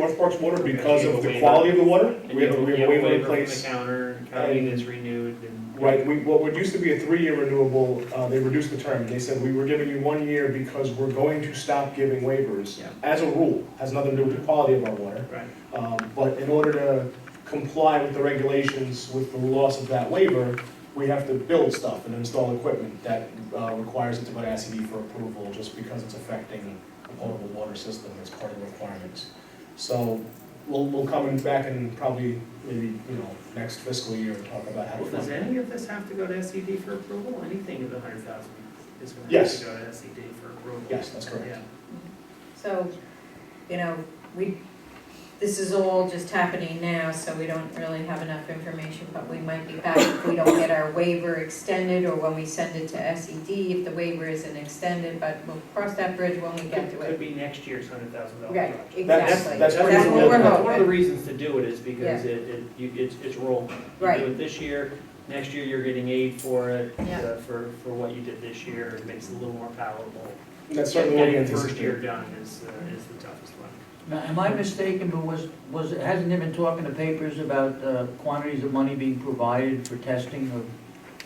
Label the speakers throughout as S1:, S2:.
S1: North Park's water because
S2: Okay,
S1: of the
S2: waiver.
S1: quality of the water.
S2: And
S1: We have a
S2: you-
S1: we
S2: you
S1: have a waiver in
S2: from the
S1: place.
S2: Counter, county
S1: And-
S2: is renewed and.
S1: Right, we, what would used to be a three-year renewable, uh, they reduced the term. They said, we were giving you one year because we're going to stop giving waivers.
S2: Yeah.
S1: As a rule, has nothing to do with the quality of our water.
S2: Right,
S1: Um, But in order to comply with the regulations with the loss of that waiver, we have to build stuff and install equipment that uh, requires it to go to SED for approval, just because it's affecting the potable water system as part of the requirements. So we'll, we'll come in back and probably, maybe, you know, next fiscal year and talk about how to
S2: well, does
S1: fund it.
S2: any of this have to go to SED for approval, anything of the hundred thousand is gonna have
S1: Yes.
S2: to go to SED for approval?
S1: Yes, that's correct.
S2: Yeah,
S3: So, you know, we, this is all just happening now, so we don't really have enough information, but we might be back if we don't get our waiver extended, or when we send it to SED, if the waiver isn't extended, but we'll cross that bridge when we
S2: could,
S3: get to
S2: could
S3: it.
S2: be next year's hundred thousand dollar
S3: Right,
S2: project.
S1: That's-
S3: exactly.
S1: that's pretty
S3: what we're
S1: reasonable.
S2: One of the
S3: hoping.
S2: reasons to do it is because it, it, you, it's, it's rolling. You
S3: Right.
S2: do it this year, next year you're getting aid for it,
S3: Yeah.
S2: uh, for, for what you did this year, it makes it a little more palatable.
S1: And That's certainly what we
S2: Getting the first
S1: anticipate.
S2: year done is, uh, is the toughest one.
S4: Now, am I mistaken, but was, was, hasn't there been talk in the papers about uh, quantities of money being provided for testing of,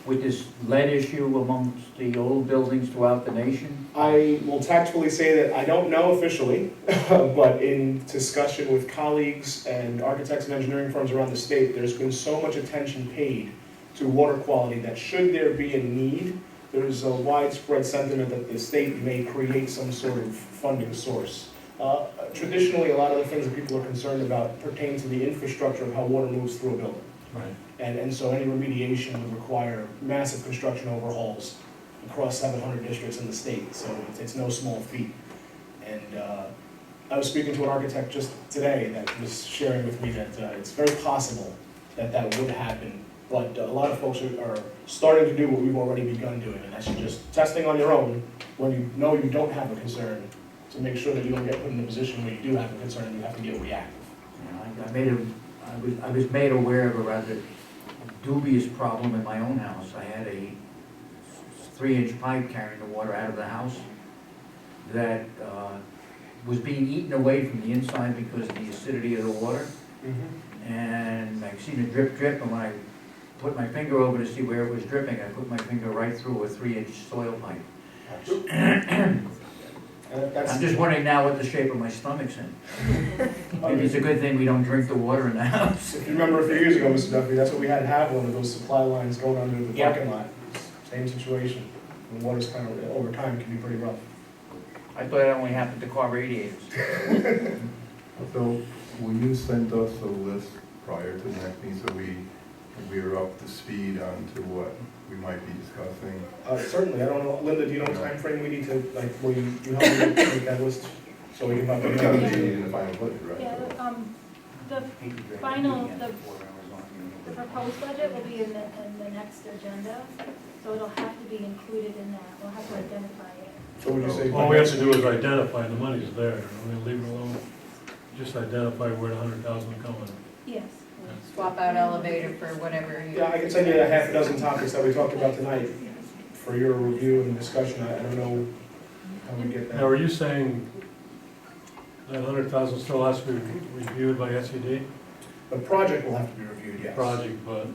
S4: with this lead issue amongst the old buildings throughout the nation?
S1: I will tactfully say that I don't know officially, but in discussion with colleagues and architects and engineering firms around the state, there's been so much attention paid to water quality that should there be a need, there's a widespread sentiment that the state may create some sort of funding source. Uh, Traditionally, a lot of the things that people are concerned about pertain to the infrastructure of how water moves through a building.
S4: Right.
S1: And, and so any remediation would require massive construction overhauls across seven hundred districts in the state, so it's, it's no small feat. And, uh, I was speaking to an architect just today that was sharing with me that, uh, it's very possible that that would happen, but a lot of folks are, are starting to do what we've already begun doing, and that's just testing on your own when you know you don't have a concern, to make sure that you don't get put in a position where you do have a concern and you have to get reactive.
S4: I I made a, I was, I was made aware of a rather dubious problem in my own house. I had a three-inch pipe carrying the water out of the house that uh, was being eaten away from the inside because of the acidity of the water. and I seen a drip drip, and when I put my finger over to see where it was dripping, I put my finger right through a three-inch soil pipe.
S1: And
S4: I'm
S1: that's,
S4: just wondering now what the shape of my stomach's in. Maybe it's a good thing we don't drink the water in the house.
S1: If you remember a few years ago, Mr. Duffy, that's what we had to have, one of those supply lines going under the
S4: Yeah.
S1: parking lot. Same situation. And water's kind of, over time, can be pretty rough.
S4: I thought it only happened to car radiators.
S5: So, will you send us a list prior to the next meeting, so we, we are up to speed on to what we might be discussing?
S1: Uh, certainly, I don't know, Linda, do you know what timeframe we need to, like, will you, you help me make that list? So we can.
S5: But it's gonna be in the final budget, right?
S6: Yeah, the, um, the, Final- the- the proposed budget will be in the, in the next agenda, so it'll have to be included in that, we'll have to identify it.
S1: So would you say?
S7: All we have to do is identify, the money's there, and we leave it alone, just identify where the hundred thousand is going.
S6: Yes.
S3: Swap out elevator for whatever you.
S1: Yeah, I can send you a half a dozen topics that we talked about tonight for your review and discussion. I I don't know how we get
S7: Now,
S1: that.
S7: are you saying that hundred thousand still has to be reviewed by SED
S1: The project will have to be reviewed, yes.
S7: project, but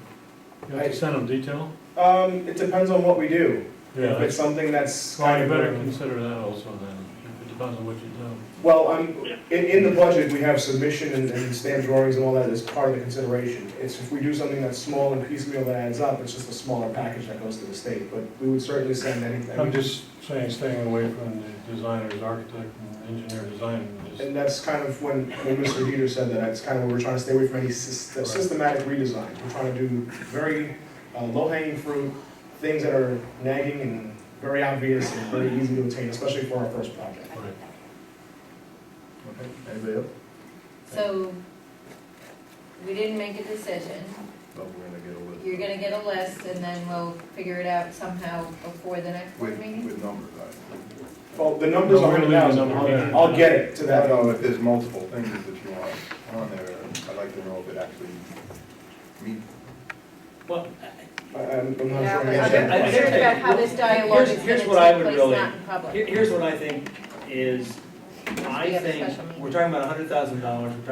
S7: you have to send them detail?
S1: Um, it depends on what we do.
S7: Yeah,
S1: If it's
S7: that's-
S1: something that's
S7: well,
S1: kind
S7: you
S1: of.
S7: better
S1: um,
S7: consider that also then, it depends on what you do.
S1: Well, I'm, in, in the budget, we have submission and, and stamp drawings and all that as part of the consideration. It's if we do something that's small and piecemeal that adds up, it's just a smaller package that goes to the state, but we would certainly send
S7: I'm
S1: anything.
S7: just saying, staying away from the designers, architect, and engineer design, just,
S1: And that's kind of when, when Mr. Heater said that, that's kind of where we're trying to stay away from any sys- systematic redesign. We're trying to do very uh, low-hanging fruit, things that are nagging and very obvious and very easy to attain, especially for our first project.
S7: right.
S5: Okay, anybody else?
S3: So, we didn't make a decision,
S5: No, Oh, we're gonna get a list.
S3: you're gonna get a list, and then we'll figure it out somehow before the next board
S5: With,
S3: meeting?
S5: with numbers, I.
S1: Well, the numbers are
S7: No, we're
S1: hundred
S7: gonna leave the
S1: thousand,
S7: number.
S1: I'll, I'll get it to
S5: I
S1: that.
S5: don't know if there's multiple things that you want on there, I'd like to know if it actually meets.
S2: Well,
S1: I- I'm, I'm not
S3: Yeah,
S1: sure. I
S3: but I'm
S1: understand.
S2: I- I-
S3: I'm curious about how this dialogue is
S2: Here's-
S3: gonna
S2: here's
S3: take
S2: what I would
S3: place,
S2: really-
S3: not in public.
S2: Here- Here's what I think is,
S3: We
S2: I
S3: have a
S2: think,
S3: special meeting.
S2: we're talking about a hundred thousand dollars, we're talking